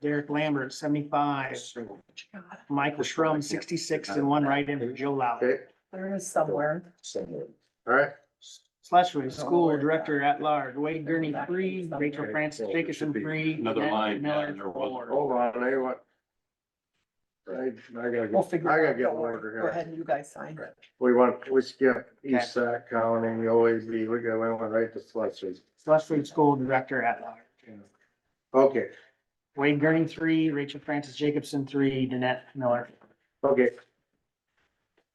Derek Lambert, seventy-five, Michael Schrum, sixty-six, and one write-in for Joe Lowry. Okay, There is somewhere. somewhere. all right. Schleswig School Director at Large, Wade Gurney, three, Rachel Francis Jacobson, three. Another Nancy line, yeah, Miller, there was- four. Hold on, I want. I, I gotta, We'll get- figure. I it gotta out. get Don't worry. longer Go here. ahead and you guys sign. We want, we skip E East Sac County, we always be, we go, we went right to Schleswig. Schleswig School Director at Large. Okay, Wade Gurney, three, Rachel Francis Jacobson, three, Danette Miller. okay,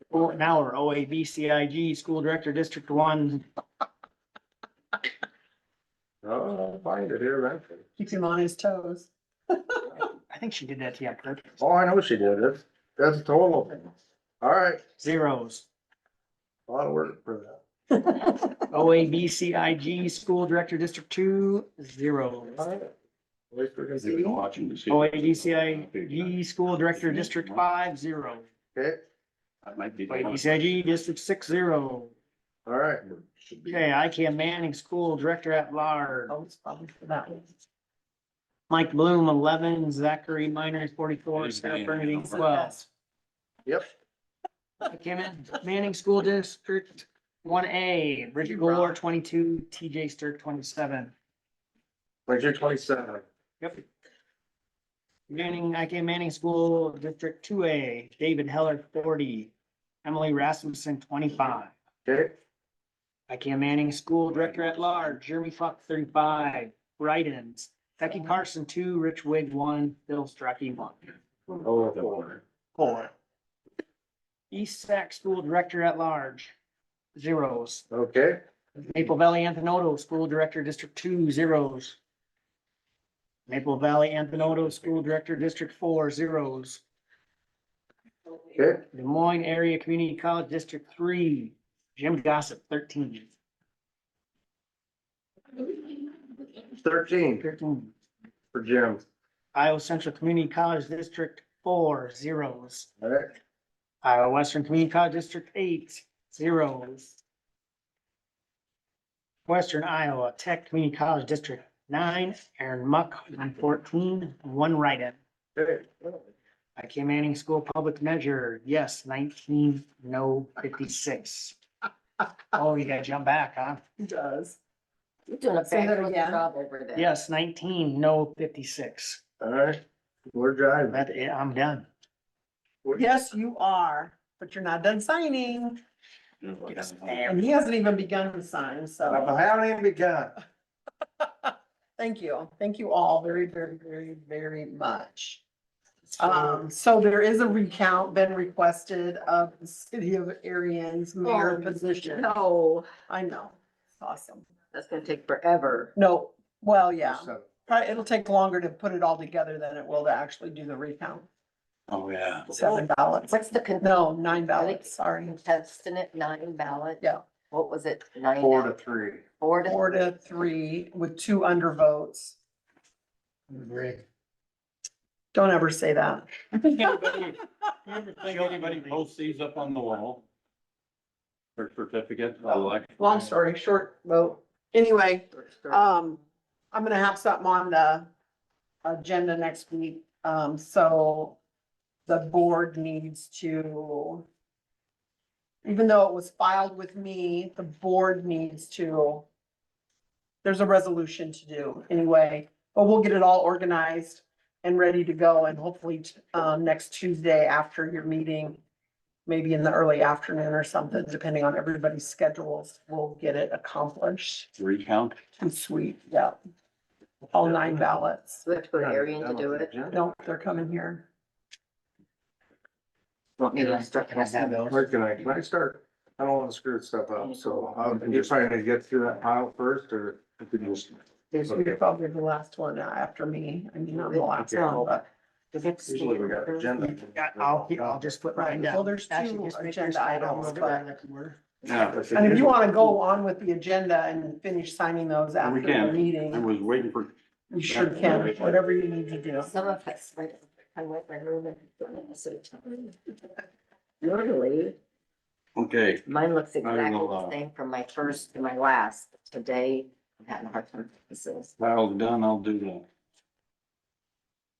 Well, Now we're OAB CIG, School Director, District One, oh, I'll find it here eventually. Keeps him on his toes. I think she did that to you on purpose. Oh, I know she did, that's, that's total. All right, Zeros. a lot of work for that. OAB CIG, School Director, District Two, zeros. All right. At least we're gonna They were see. watching to see- OAB CIG, E School Director, District Five, zero. Okay, That might be the one. OAB CIG, District Six, zero. all right, Should be. Okay, ICAM Manning, School Director at Large. Oh, it's probably for that one. Mike Bloom, eleven, Zachary Miners, forty-four, Hey, Scott man. Bernadine, twelve. yep, Came in, Manning School District one A, Bridget Gore, twenty-two, TJ Stirk, twenty-seven. like you're twenty-seven. Yep. Manning, IK Manning School District two A, David Heller, forty, Emily Rasmussen, twenty-five. Okay, IK Manning School Director at Large, Jeremy Fuck, thirty-five, write-ins, Becky Carson, two, Rich Wig, one, Bill Strachey, one. oh, four. Four. East Sac School Director at Large, zeros. Okay, Maple Valley Anthonoto School Director, District Two, zeros. Maple Valley Anthonoto School Director, District Four, zeros. okay, Des Moines Area Community College, District Three, Jim Gossip, thirteen. thirteen Thirteen. for Jim. Iowa Central Community College, District Four, zeros. All right, Iowa Western Community College, District Eight, zeros. Western Iowa Tech Community College, District Nine, Aaron Muck, 14 fourteen, one write-in. okay, IK Manning School Public Measure, yes, nineteen, no, fifty-six. Oh, you gotta jump back, huh? He does. You're doing a Say that fabulous again. job over there. Yes, nineteen, no, fifty-six. all right, we're driving. That, eh, I'm done. Yes, you are, but you're not done signing. Yes. And he hasn't even begun to sign, so I haven't even begun. thank you. Thank you all very, very, very, very much. Um, so there is a recount been requested of the city of Arion's mayor Oh, position. No, I know. It's Awesome. that's gonna take forever. No, well, yeah, probably it'll take longer to put it all together than it will to actually do the recount. Oh, yeah. Seven ballots. What's the con- No, nine ballots, sorry. contestant at nine ballot? Yeah. What was it? Nine? Four to out- three. Four to. Four to three with two undervotes. Don't ever say that. Think anybody posts these up on the wall? For certificate of election? Long story, short vote. Anyway, Uh, Um, I'm gonna have something on the agenda next week, um, so the board needs to. Even though it was filed with me, the board needs to. There's a resolution to do anyway, but we'll get it all organized and ready to go and hopefully, um, next Tuesday after your meeting. Maybe in the early afternoon or something, depending on everybody's schedules, we'll get it accomplished. Recount. Too sweet, yeah. All nine ballots. So we have to go to Arian to do it. No, they're coming here. Want me to instruct Can I have myself? those? Where can I, can I start? I don't wanna screw stuff up, so I'm just trying to get through that pile first or. There's, you're probably the last one after me. I mean, I'm the last one, but. Usually we got agenda. Yeah, I'll, I'll just put mine Well, down. there's Actually, two just make yours agenda items, but, Yeah, and if you want to go on with the agenda and finish signing those after the can. I meeting, was waiting for. you sure can, whatever you need to do. Some of us, right, I went my room and. so- Literally, Okay, mine looks don't exactly know, the uh, same from my first to my last. Today, I'm having a hard time. with this. pile's done, I'll do the